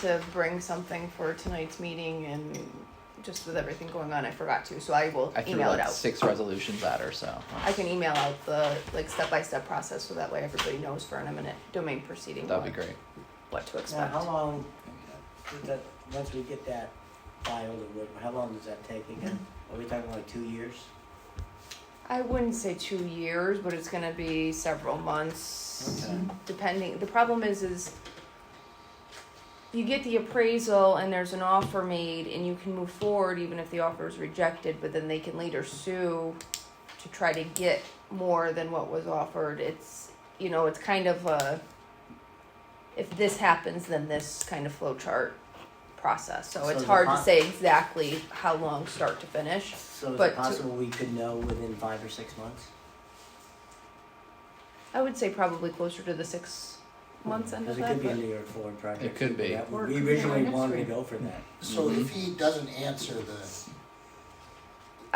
to bring something for tonight's meeting and just with everything going on, I forgot to, so I will I threw email it like out. six resolutions at her, so. I can email out the like step-by-step process so that way everybody knows for an eminent domain proceeding That'd be what- great. what to Now, expect. how long, did that, once we get that filed, or what- how long does that take again? Are we talking like two years? I wouldn't say two years, but it's gonna be several months, Okay. depending. The problem is, is you get the appraisal and there's an offer made, and you can move forward even if the offer is rejected. But then they can later sue to try to get more than what was offered. It's you know, it's kind of a if this happens, then this kind of flowchart process. So, So it's the hard to con- say exactly how long start to finish. So is But it to- possible we could know within five or six months? I would say probably closer to the six months end of Cause it that. could be a but- New York Ford project. It could be. That- Or it We could be originally our wanted to next go for that. So Mhm. if he doesn't answer the,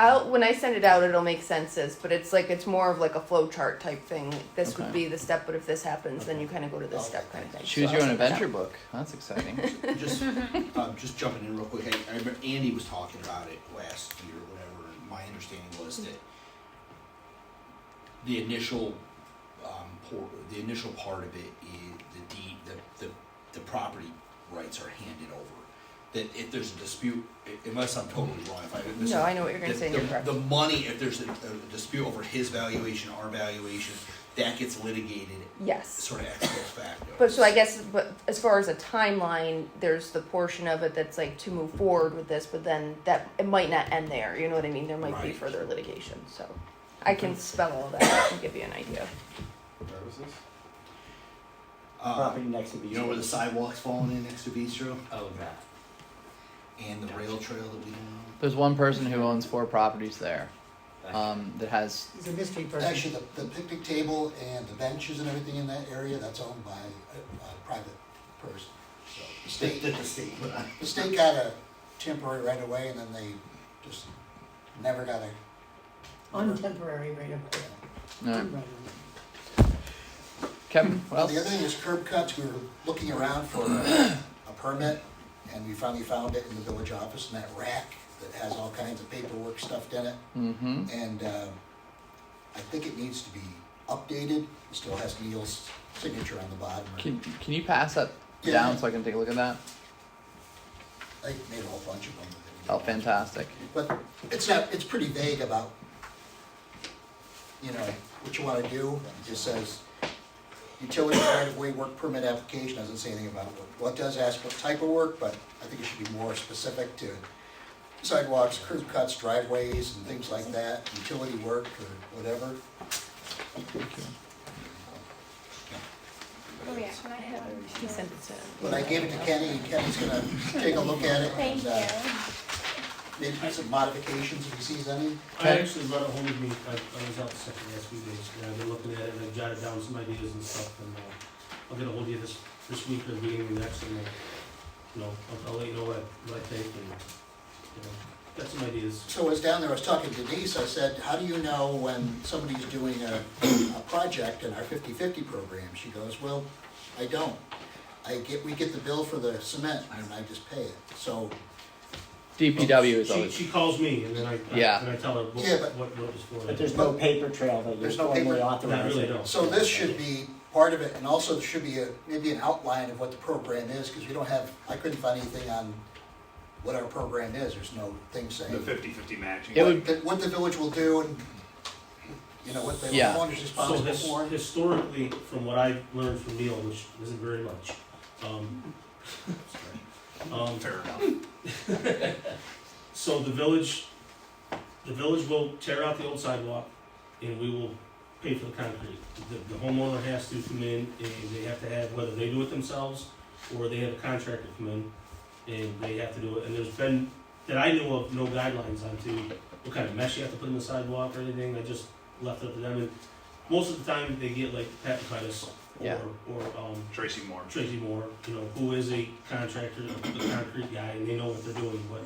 I'll, when I send it out, it'll make senses, but it's like, it's more of like a flow chart type thing. This would Okay. be the step, but if this happens, then you kind of go to this Okay. step kind of thing. Choose So your I'll own send it out. adventure book. That's exciting. just, um, just jumping in real quick, I, I remember Andy was talking about it last year or whatever, and my understanding was that the initial, um, por- the initial part of it is the deed, the, the, the property rights are handed over. That if there's a dispute, i- unless I'm totally wrong, if I. this is- No, I know what you're gonna the- say, and the- you're correct. The money, if there's a, a dispute over his valuation, our valuation, that gets litigated Yes. sort of ex post facto. But so I guess, but as far as a timeline, there's the portion of it that's like to move forward with this, but then that, it might not end there, you know what I mean? There might be Right. further litigation, so. I can spell all that out and give you an idea. Uh, Property next to Beach. You know where the sidewalk's falling in next to Bistro? Oh, God. And the rail trail that we don't There's one person who owns four properties there, um, that has, He's a mystery own? person. Actually, the, the picnic table and the benches and everything in that area, that's owned by a, a private person. So the That- state, that the state put on. the state got a temporary right away, and then they just never got a. Untemporary right of no. way. Kevin, what Well, the other else? thing is curb cuts, we were looking around for a a permit, and we finally found it in the village office in that rack that has all kinds of paperwork stuffed in it. Mm-hmm. And um, I think it needs to be updated. It still has Neil's signature on the bottom. Can, can you pass that Yeah. down so I can take a look at that? I made a whole bunch of them. that we Oh, didn't fantastic. want. But it's not, it's pretty vague about, you know, what you want to do. It just says utility right-of-way work permit application, doesn't say anything about what, well, it does ask what type of work, but I think it should be more specific to sidewalks, curb cuts, driveways, and things like that, utility work or whatever. Oh, yeah, and I have it. He sent it to. But I gave it to Kenny, and Kenny's gonna take a look at it. and Thank you. uh, Maybe some modifications if he sees any. I actually brought it home with me, I, I was out sick the last few days, and I've been looking at it, and I jotted down some ideas and stuff, and, uh, I'll get ahold of you this, this week or beginning of next, and, uh, you know, I'll, I'll let you know what, I- what I think, and, you know, got some ideas. So I was down there, I was talking to Denise, I said, how do you know when somebody's doing a, a project in our 50/50 program? She goes, well, I don't. I get, we get the bill for the cement and I just pay it. So, DPW is She- always, She calls me, and then I, I- Yeah. and I tell her what, Yeah, but- what, what it's for. But there's no paper trail that you're There's no formally paper- authorizing. Not really, no. so this should be part of it and also there should be a, maybe an outline of what the program is, because we don't have, I couldn't find anything on what our program is, there's no thing saying. The fifty-fifty matching. It would- What, the- what the village will do and, you know, what the Yeah. homeowner's So responsible his, for. historically, from what I learned from Neil, which isn't very much, um, um, Fair enough. So the village, the village will tear out the old sidewalk and we will pay for the concrete. The, the homeowner has to come in and they have to have, whether they do it themselves or they have a contractor come in and they have to do it. And there's been, that I knew of, no guidelines on to what kind of mesh you have to put in the sidewalk or anything. I just left it up to them. And most of the time they get like Pat Titus Yeah. or, or, um, Tracy Moore. Tracy Moore, you know, who is a contractor, a concrete guy, and they know what they're doing, but,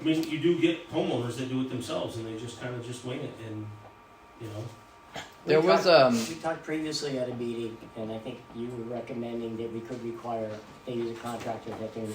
I mean, you do get homeowners that do it themselves, and they just kinda just wing it, and, you know, There We was, talked- um, We talked previously at a meeting, and I think you were recommending that we could require, they use a contractor that they